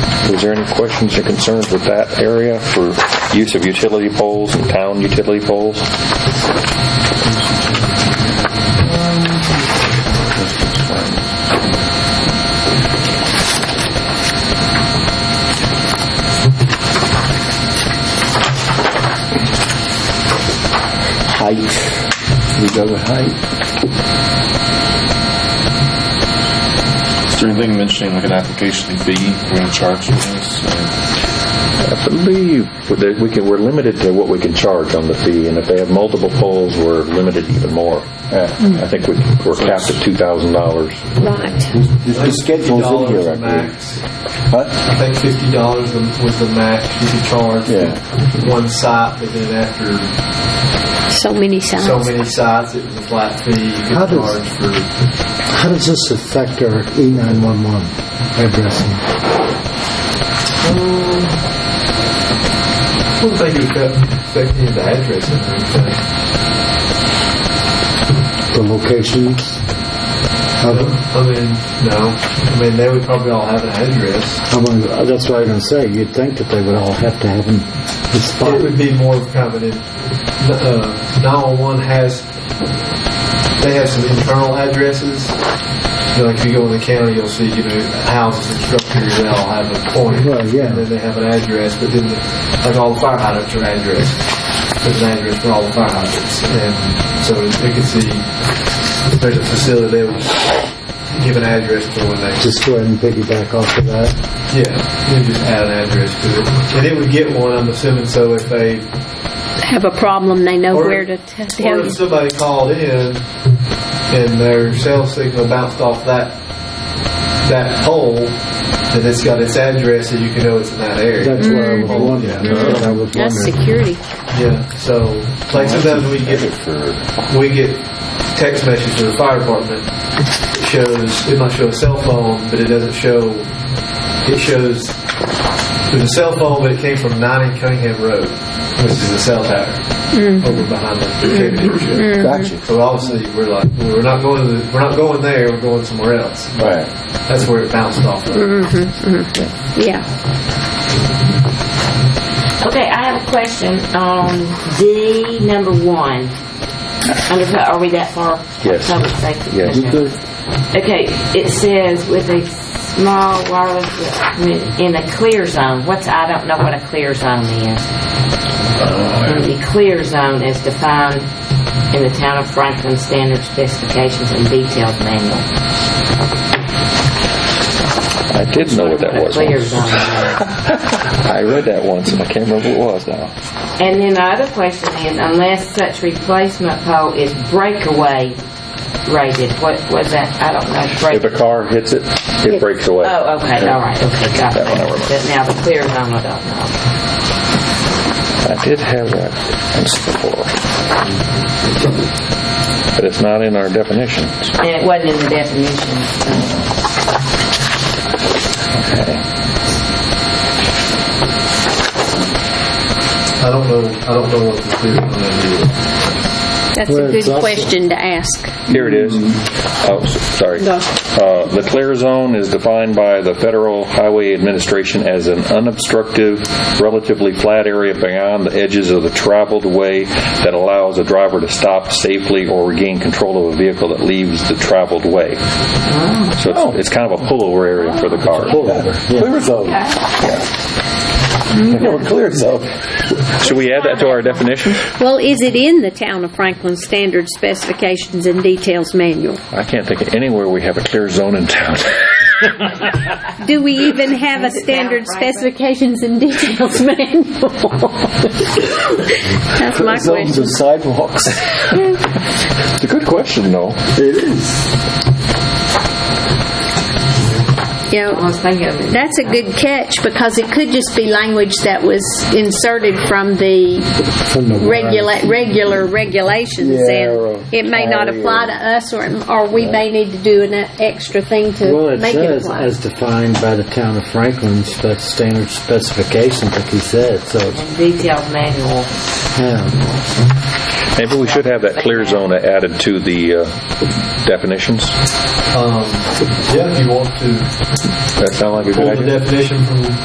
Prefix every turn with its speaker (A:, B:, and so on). A: Is there any questions or concerns with that area for use of utility poles and town utility poles?
B: height. We go with height.
C: Is there anything mentioning like an application fee we're going to charge for this? Uh,
A: I believe that we can, we're limited to what we can charge on the fee, and if they have multiple poles, we're limited even more. Uh, I think we- we're capped at $2,000.
D: Right.
B: The schedule's in
E: $50
B: here, I believe.
E: max.
B: Huh?
E: I think fifty dollars was the max you could charge for one site, but then after
D: So many signs.
E: so many sites, it was a flat fee you
F: How
E: could
F: does-
E: charge for.
F: How does this affect our E E911 addressing?
E: I don't think it would affect any of the addresses or anything.
F: The locations? How,
E: I mean, no. I mean, they would probably all have an address.
F: how many, that's what I was going to say. You'd think that they would all have to have them the spot.
E: It would be more of kind of an, uh, 911 has, they have some internal addresses. You know, like if you go in the county, you'll see, you know, houses and structures, they all have a point.
F: Right, yeah.
E: And then they have an address, but then, the- like all the fire hydrants are addressed. There's an address for all the fire hydrants. And so they could see, if there's a facility, they would give an address to when they.
F: Just go ahead and piggyback off of that.
E: Yeah, you just add an address to it. And it would get one, I'm assuming, so if they,
D: Have a problem, they know
E: Or-
D: where to t-
E: or
D: tell
E: if
D: you.
E: somebody called in and their cell signal bounced off that, that pole, then it's got its address so you can know it's in that area.
F: That's what I was
D: Mm-hmm.
F: wondering. That's what I was
D: That's
F: wondering.
D: security.
E: Yeah, so, like sometimes we get, we get text messages to the fire department. It shows, it might show a cell phone, but it doesn't show, it shows, there's a cell phone, but it came from 90 Cunningham Road, which is the cell tower over behind the tribute ship.
B: Gotcha.
E: So obviously, we're like, we're not going to, the, we're not going there, we're going somewhere else.
B: Right.
E: That's where it bounced off of.
D: Yeah.
G: Okay, I have a question on D number one. Under, are we that far?
A: Yes.
G: Public safety.
A: Yes.
G: Okay. Okay, it says with a small wireless equipment in a clear zone. What's, I don't know what a clear zone is. The clear zone is defined in the town of Franklin standard specifications and detailed manual.
A: I did know what that was.
G: A clear
A: once.
G: zone is.
A: I read that once, and I can't remember what it was now.
G: And then the other question is, unless such replacement pole is breakaway rated, what was that? I don't know.
A: If a
G: Break-
A: car hits it, it breaks away.
G: oh, okay, all right, okay, got it.
A: That one I remember.
G: But now the clear zone, I don't know.
A: I did have that once before. But it's not in our definitions.
G: And it wasn't in the definition. so-
E: I don't know, I don't know what the clear on that
D: That's
F: Well,
D: a
F: it's
D: good
F: also-
D: question to ask.
A: Here it is. Oh, s- sorry.
D: Go.
A: Uh, The clear zone is defined by the Federal Highway Administration as an unobstructive, relatively flat area beyond the edges of the traveled way that allows a driver to stop safely or regain control of a vehicle that leaves the traveled way. So it's- it's kind of a pullover area for the car.
B: Clear zone. Or clear zone.
A: Should we add that to our definition?
D: Well, is it in the town of Franklin standard specifications and details manual?
A: I can't think of anywhere we have a clear zone in town.
D: Do we even have a standard specifications and details manual? That's my
B: Zones
D: question.
B: of sidewalks.
A: It's a good question, though.
B: It is.
D: You
G: I
D: know,
G: was thinking of it.
D: That's a good catch because it could just be language that was inserted from the
F: From the-
D: regula- regular regulations
B: Yeah, or
D: and it may not
B: carrier.
D: apply to us or, or we may need to do an extra thing
F: Well,
D: to
F: it
D: make it
F: says
D: apply.
F: as defined by the town of Franklin spec- standard specifications, like you said. So,
G: Detailed manual.
F: yeah.
A: Maybe we should have that clear zone added to the uh, definitions.
E: Um, yeah, if you want to
A: That sound like a
E: pull
A: good
E: the
A: idea?
E: definition from